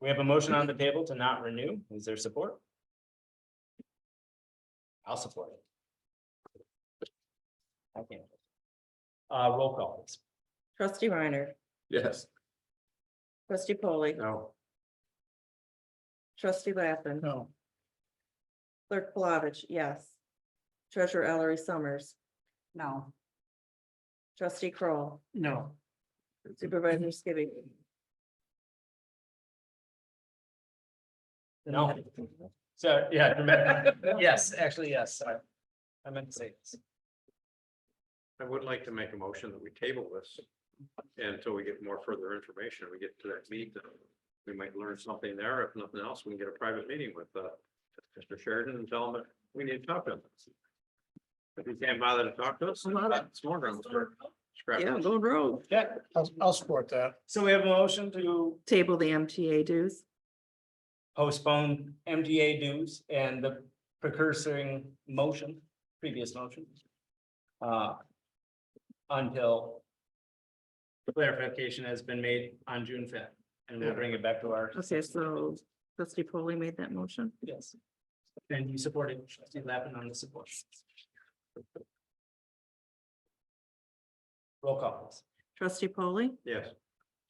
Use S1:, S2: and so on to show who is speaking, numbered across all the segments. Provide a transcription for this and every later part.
S1: We have a motion on the table to not renew. Is there support? I'll support it. I can't. Uh, roll call. please.
S2: Trustee Reiner,
S3: Yes.
S2: trustee Polly,
S3: No.
S2: trustee Lappin,
S3: No.
S2: clerk Palovich, yes. Treasurer Ellery Summers,
S4: No.
S2: trustee Kroll,
S4: No.
S2: supervisor Skibby.
S1: No. So, yeah. Yes, actually, yes, sorry. I meant to say this.
S3: I would like to make a motion that we table this until we get more further information. We get to that meeting. We might learn something there. If nothing else, we can get a private meeting with uh Mr. Sheridan and tell him that we need to talk to him. If he can't bother to talk to us, it's more grounds for scrap.
S2: go rogue.
S1: Yeah,
S5: I'll, I'll support that.
S1: so we have a motion to
S2: Table the MTA dues.
S1: postpone MDA dues and the precursoring motion, previous motion. uh, Until clarification has been made on June fifth, and we'll bring it back to our.
S2: Okay, so trustee Polly made that motion.
S1: Yes. And you supported trustee Lappin on the support. Roll call. please.
S2: Trustee Polly,
S3: Yes.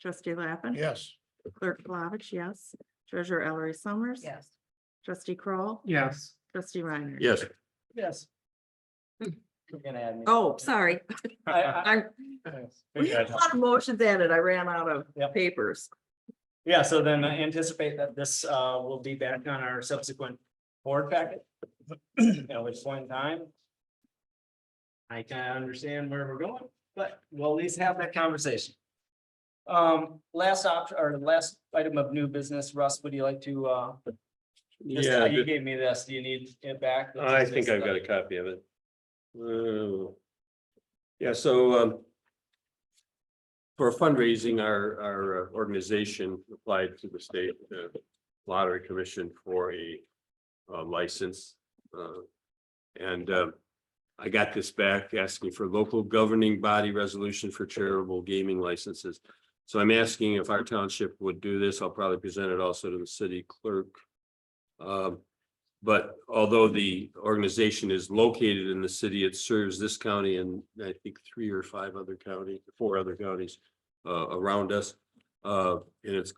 S2: trustee Lappin.
S5: Yes.
S2: Clerk Palovich, yes. Treasurer Ellery Summers.
S4: Yes.
S2: Trustee Kroll,
S5: Yes.
S2: trustee Reiner.
S3: Yes.
S1: Yes. You're gonna add me.
S2: Hmm. Oh, sorry.
S1: I- I-
S2: I, we had a lot of motions added. I ran out
S1: Yep.
S2: of papers.
S1: Yeah, so then I anticipate that this uh will be back on our subsequent board packet. At which point in time. I kind of understand where we're going, but we'll at least have that conversation. Um, last option, or last item of new business, Russ, would you like to uh? this-
S6: Yeah,
S1: You
S6: th-
S1: gave me this, do you need it back?
S6: I think I've got a copy of it. Oh. Yeah, so um. For fundraising, our our uh, organization applied to the state uh, lottery commission for a uh, license. uh, And um, I got this back asking for local governing body resolution for charitable gaming licenses. So I'm asking if our township would do this. I'll probably present it also to the city clerk. Um, but although the organization is located in the city, it serves this county and I think three or five other county, four other counties uh, around us. Uh, and it's,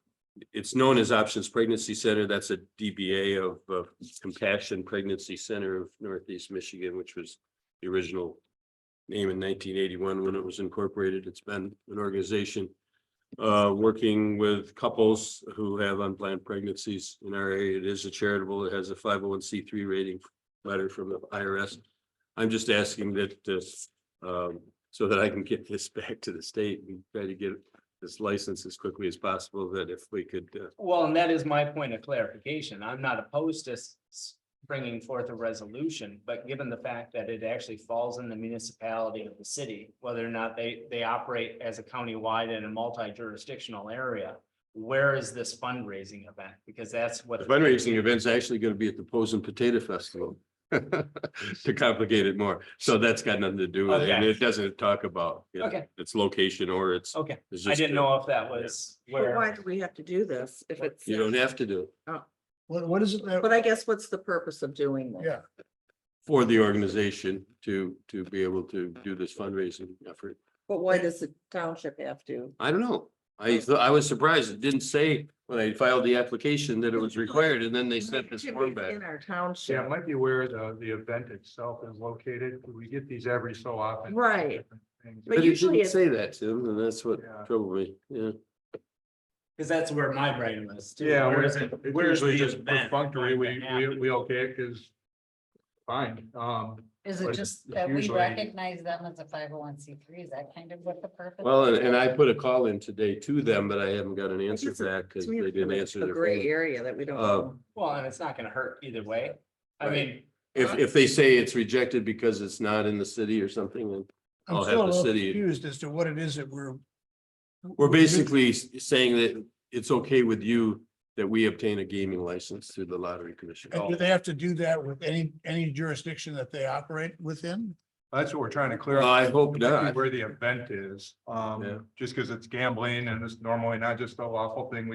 S6: it's known as Options Pregnancy Center. That's a DBA of uh, Compassion Pregnancy Center of Northeast Michigan, which was the original name in nineteen eighty-one when it was incorporated. It's been an organization uh, working with couples who have unplanned pregnancies in our area. It is a charitable, it has a five oh one C three rating letter from the IRS. I'm just asking that this, um, so that I can get this back to the state and try to get this license as quickly as possible, that if we could, uh,
S1: Well, and that is my point of clarification. I'm not opposed to s- s- bringing forth a resolution, but given the fact that it actually falls in the municipality of the city, whether or not they, they operate as a countywide and a multi-jurisdictional area, where is this fundraising event? Because that's
S6: the
S1: what.
S6: fundraising event's actually gonna be at the Posen Potato Festival. To complicate it more, so that's got nothing to do with it, and
S1: Okay.
S6: it doesn't talk about. you know,
S1: Okay.
S6: Its location or its.
S1: Okay,
S6: it's
S1: I
S6: just
S1: didn't
S6: a-
S1: know if that was
S2: But why
S1: where,
S2: do we have to do this if it's,
S6: You don't have to do it.
S5: What, what is it? that-
S2: but I guess what's the purpose of doing this?
S5: Yeah.
S6: for the organization to, to be able to do this fundraising effort.
S2: But why does the township have to?
S6: I don't know.
S2: Oh.
S6: I, thought- I was surprised. It didn't say when I filed the application that it was required and then they sent this form back.
S2: In our
S3: Yeah,
S2: township,
S3: it might be where the, the event itself is located. We get these every so often.
S2: Right.
S3: Things.
S2: But
S6: But it
S2: usually
S6: didn't
S2: it's-
S6: say that, Tim, and that's what
S3: Yeah.
S6: troubled me. Yeah.
S1: because that's where my brain was too.
S3: Yeah,
S1: Where
S3: we're-
S1: is it?
S3: it's
S1: Where's
S3: usually
S1: the
S3: just
S1: event
S3: perfunctory,
S1: going
S3: we,
S1: to
S3: we,
S1: happen?
S3: we okay, it is fine, um,
S4: Is
S3: Or is
S4: it
S3: it
S4: just that we
S3: usually-
S4: recognize them as a five oh one C three? Is that kind of what the purpose?
S6: Well, and,
S4: is?
S6: and I put a call in today to them, but I haven't got an answer
S2: guess it-
S6: back because
S2: To me,
S6: they
S2: it's
S6: didn't
S2: really
S6: answer
S2: A
S6: their
S2: gray
S6: phone.
S2: area that we don't.
S6: Uh,
S2: know.
S1: Well, and it's not gonna hurt either way. I
S6: Right.
S1: mean,
S6: If, if they say it's rejected because it's not in the city or something, then I'll
S5: I'm
S6: have
S5: still a
S6: the
S5: little
S6: city-
S5: confused as to what it is that we're. Mhm.
S6: We're basically s- saying that it's okay with you that we obtain a gaming license through the lottery commission.
S5: And do they have to do that with any, any jurisdiction that they operate within?
S3: that's what we're trying to clear
S6: Well,
S3: up.
S6: I hope
S3: particularly
S6: not.
S3: Where the event is,
S6: Yeah.
S3: um, just because it's gambling and it's normally not just a lawful thing we